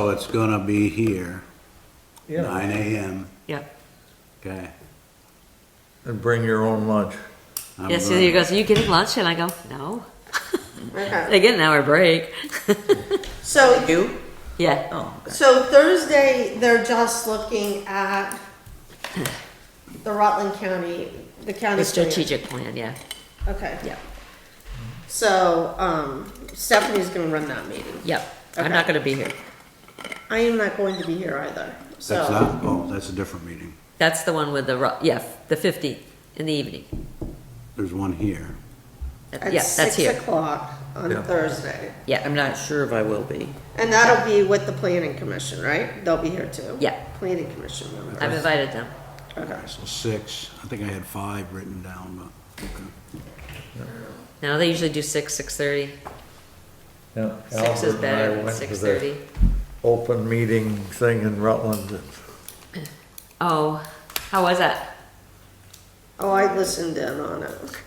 So Oh, it's gonna be here, Yeah, nine AM, Yep. okay? and bring your own lunch. I'm Yeah, so gonna- you goes, are you getting lunch? And I go, no. Okay. They get an hour break. So, You? Yeah. Oh, okay. so Thursday, they're just looking at the Rutland County, the county. The plan. strategic plan, yeah. Okay. Yeah. So, um, Stephanie's gonna run that meeting. Yep. I'm Okay. not gonna be here. I am not going to be here either, so. That's not, oh, that's a different meeting. That's the one with the, ru- yeah, the fifteenth in the evening. There's one here. Yeah, that's At here. six o'clock Yeah. on Thursday. Yeah, I'm Not not, sure if I will be. And that'll be with the planning commission, right? They'll be here too. Yeah. Planning commission members. I've invited them. Okay. So six, I think I had five written down, but, okay. No, they usually do six, six thirty. Yeah, Six is Albert and I better than went to the six thirty. Open meeting thing in Rutland. Oh, how was that? Oh, I listened in on it.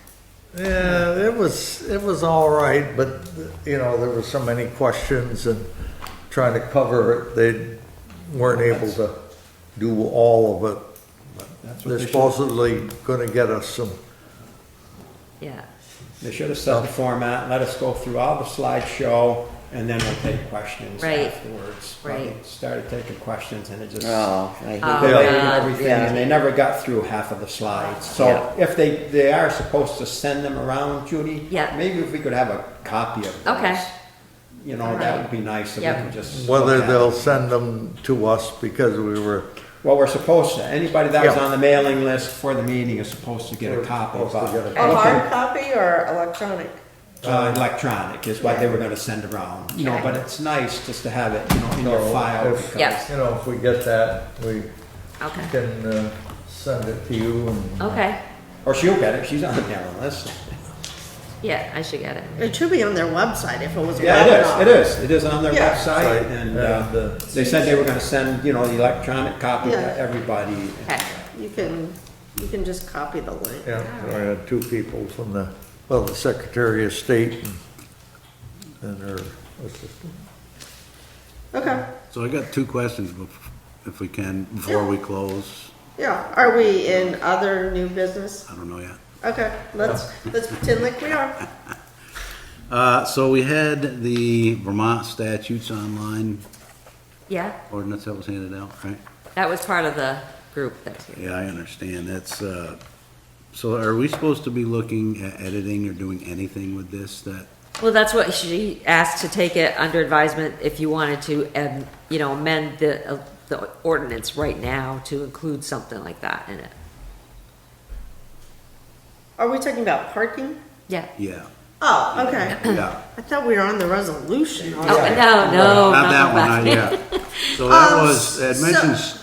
Yeah, it was, it was all right, but, you know, there were so many questions and trying to cover it, they weren't able to do all of it. That's what They're they should, supposedly gonna get us some, Yeah. they should have set the format, let us go through all the slideshow, and then we'll take questions Right. afterwards. But Right. they Started taking questions and it just. Oh, I hate Oh, They did God. everything, and they never got through half of the slides. So if they, they are supposed to send them around, Judy. Yeah. Maybe if we could have a copy of those. Okay. You know, that would be nice, so we Yep. can just. whether look at they'll it. send them to us because we were, Well, we're supposed to, anybody that was Yeah. on the mailing list for the meeting is supposed to get a We're copy. supposed to but- Oh, get a A Oh, hard copy or electronic? Uh, electronic is what they were gonna send around, you know, but it's nice just to have it, you know, in your So, file. if- because- Yeah. you know, if we get that, we Okay. can uh, send it to you and. Okay. Or she'll get it, she's on the mailing list. Yeah, I should get it. It should be on their website if it was. Yeah, webinar. it is, it is, it is on their Yeah. website, and, uh, And, uh, they said they were gonna send, you know, the electronic copy to Yeah. everybody. Okay. You can, you can just copy the link. Yeah, so I had two people from the, well, the Secretary of State and, and her assistant. Okay, So I got two questions bef- if we can, before we close. yeah, are we in other new business? I don't know yet. Okay, let's, let's pretend like we are. Uh, so we had the Vermont statutes online Yeah, ordinance that was handed out, right? that was part of the group that was here. Yeah, I understand. That's, uh, so are we supposed to be looking at editing or doing anything with this that Well, that's what she asked to take it under advisement if you wanted to, um, you know, amend the, uh, the ordinance right now to include something like that in it. Are we talking about parking? Yeah. Yeah, Oh, okay. yeah. I thought we were on the resolution. Oh, no, no, Not that not one, I- that one. yeah. So that Um, was, it so- mentions,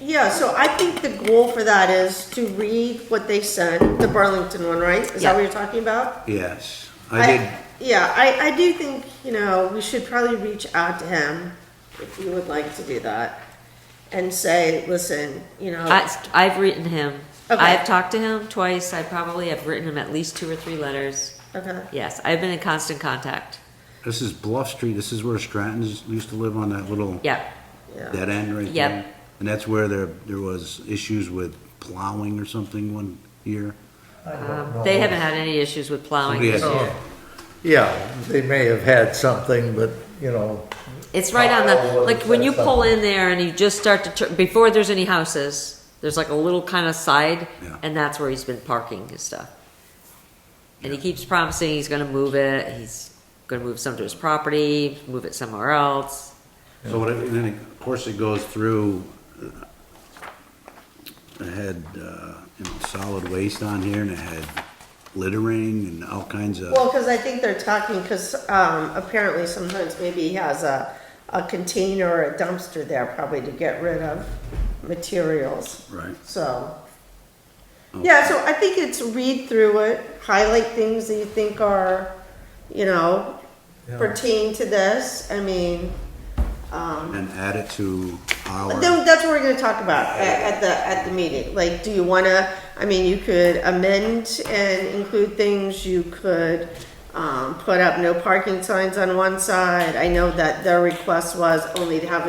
Yeah, so I think the goal for that is to read what they sent, the Burlington one, right? Is that Yeah. what you're talking about? yes, I did, Yeah, I, I do think, you know, we should probably reach out to him if you would like to do that and say, listen, you know. I, I've written him. Okay. I've talked to him twice. I probably have written him at least two or three letters. okay. Yes, I've been in constant contact. this is Bluff Street, this is where Stratton's used to live on that little Yeah, Yeah. dead end right Yep. there. And that's where there, there was issues with plowing or something one year. I don't um, know. they haven't had any issues with plowing Somebody this had- year. Yeah, they may have had something, but, you know, It's right on Oh, the, well, like, when you that's pull something. in there and you just start to, tur- before there's any houses, there's like a little kind of side, Yeah. and that's where he's been parking his stuff. And he keeps promising he's gonna move it, he's gonna move some to his property, move it somewhere else. So what, it- and then, of course, it goes through, uh, it had, uh, you know, solid waste on here and it had littering and all kinds of. Well, because I think they're talking, because um, apparently sometimes maybe he has a, a container or a dumpster there probably to get rid of materials. Right. So, yeah, so I think it's read through it, highlight things that you think are, you know, Yeah. pertain to this. I mean, um, And add it to our. then that's what we're gonna talk about at, at the, at the meeting. Like, do you wanna, I mean, you could amend and include things, you could, um, put up no parking signs on one side. I know that their request was only to have